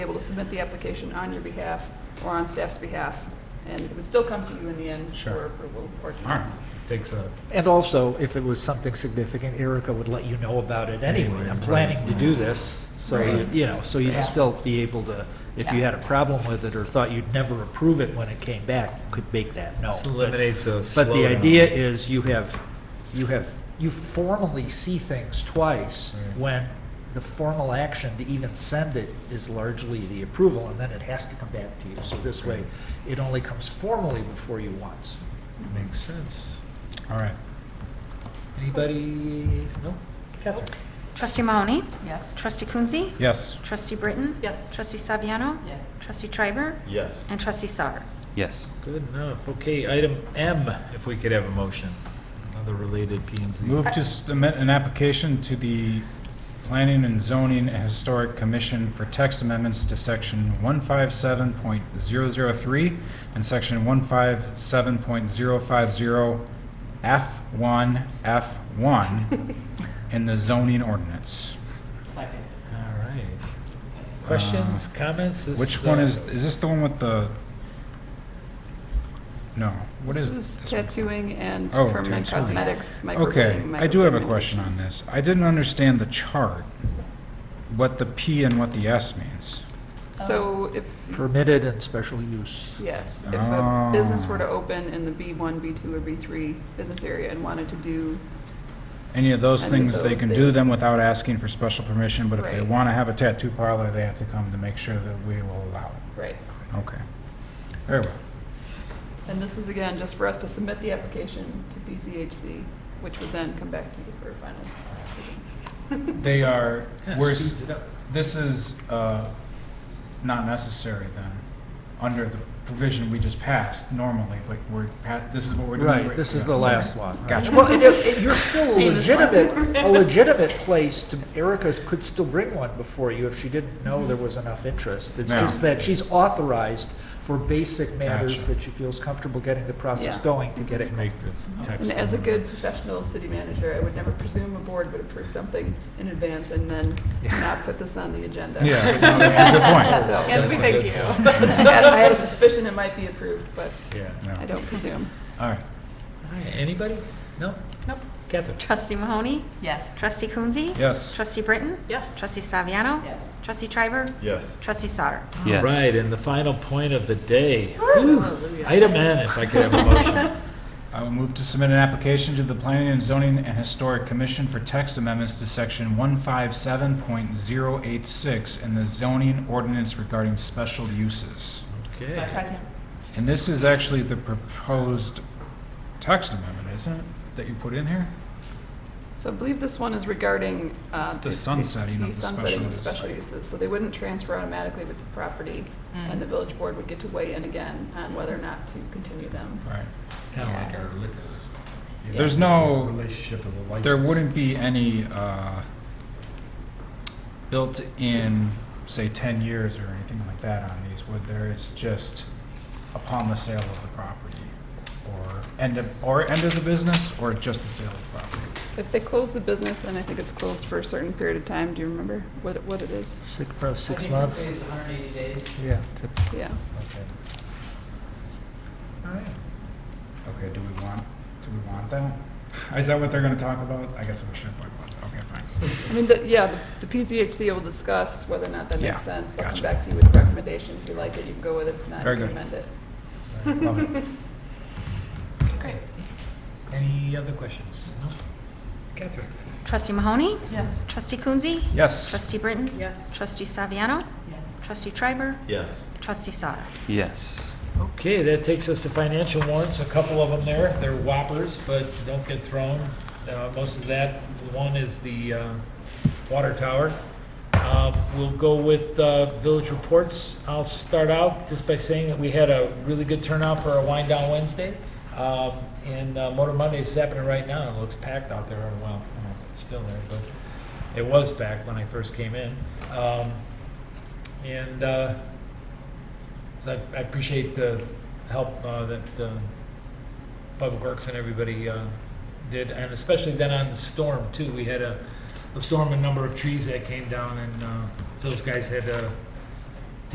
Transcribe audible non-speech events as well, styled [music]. able to submit the application on your behalf or on staff's behalf, and it would still come to you in the end for Sure. approval or All right, takes a, And also, if it was something significant, Erica would let you know about it anyway. Anyway, I'm right. planning to do this, so, you- Right. you know, so Yeah. you'd still be able to, if you Yeah. had a problem with it or thought you'd never approve it when it came back, could make that known. this But- eliminates a But the slowdown. idea is you have, you have, you formally see things twice Right. when the formal action to even send it is largely the approval, and then it has to come back to you. So this way, it only comes formally before you once. Makes sense. All right. Anybody? No? Catherine? Trustee Mahoney? Yes. Trustee Coonsey? Yes. Trustee Britton? Yes. Trustee Saviano? Yes. Trustee Triber? Yes. And Trustee Sauer. Yes. Good enough. Okay, item M, if we could have a motion, another related P and Z. Move to submit an application to the Planning and Zoning and Historic Commission for text amendments to section 157.003 and section 157.050 F1, [laughs] F1 in the zoning ordinance. All right. Questions, comments? This, Uh, Which one uh, is, is this the one with the, no, what is? This is tattooing and Oh, permanent tattooing. cosmetics, Okay, microblading, I do have a micropigmentation. question on this. I didn't understand the chart, what the P and what the S means. Uh, So if, Permitted and special use. yes, if a Oh. business were to open in the B1, B2, or B3 business area and wanted to do, Any of those Any of things, they those can that- do them without asking for special permission, but if they Right. want to have a tattoo parlor, they have to come to make sure that we will allow it. right. Okay. Very well. And this is again, just for us to submit the application to BCHC, which would then come back to you for a final decision. They are, Kinda we're, speeds s- it up. this is uh, not necessary then, under the provision we just passed normally, like we're, pa- this is what we're doing. Right, this is the Okay. last one. Gotcha. Well, and it- it- you're still a Famous last legitimate, a legitimate place to, Erica could still bring one before you if she didn't know there was enough interest. It's Yeah. just that she's authorized for basic matters Gotcha. that she feels comfortable getting the process Yeah. going to get it. Just make the And text. as a good amendments. professional city manager, I would never presume a board would approve something in advance and then not put this on the agenda. Yeah, no, that's a good point. [laughs] So- That's a good point. I had a suspicion it might be approved, but [laughs] Yeah. I Yeah. don't presume. All right. All right, anybody? No? Nope. Catherine? Trustee Mahoney? Yes. Trustee Coonsey? Yes. Trustee Britton? Yes. Trustee Saviano? Yes. Trustee Triber? Yes. Trustee Sauer. Yes. Right, and the final point of the day. Item N, if I could have a motion. I will move to submit an application to the Planning and Zoning and Historic Commission for text amendments to section one five seven point zero eight six in the zoning ordinance regarding special uses. Okay. And this is actually the proposed text amendment, isn't it, that you put in here? So I believe this one is regarding. uh, It's the sunsetting of the sunsetting of special special uses. So they wouldn't transfer automatically with the property, Mm. and the village board would get to weigh in again on whether or not to continue them. Right. Kind of like our liquor. There's no, Relationship of a license. there wouldn't be any, uh, built in, say, ten years or anything like that on these, would there? It's just upon the sale of the property or end of, or end of the business or just the sale of the property? If they close the business, then I think it's closed for a certain period of time. Do you remember what, it- what it is? Six, probably six months. Yeah. to- Yeah. Okay. All right. Okay, do we want, do we want that? Is that what they're gonna talk about? I guess we shouldn't talk about that. Okay, fine. I mean, the- yeah, the the PCHC will discuss whether or not that Yeah, makes sense. They'll come gotcha. back to you with a recommendation. If you like it, you can go with it. If not, you Very can good. amend it. Love it. Any other questions? No? Catherine? Trustee Mahoney? Yes. Trustee Coonsey? Yes. Trustee Britton? Yes. Trustee Saviano? Yes. Trustee Triber? Yes. Trustee Sauer. Yes. Okay, that takes us to financial warrants, a couple of them there, they're whoppers, but don't get thrown. Uh, Most of that, one is the uh, water tower. Uh, We'll go with uh, village reports. I'll start out just by saying that we had a really good turnout for our Wind Down Wednesday, Um, and uh, Motor Monday is happening right now, it looks packed out there, Oh, well, I don't know if it's still there, but it was packed when I first came in. Um, And uh, so I- I appreciate the help uh, that uh, Public Works and everybody uh, did, and especially then on the storm, too. We had a a storm, a number of trees that came down, and uh, those guys had to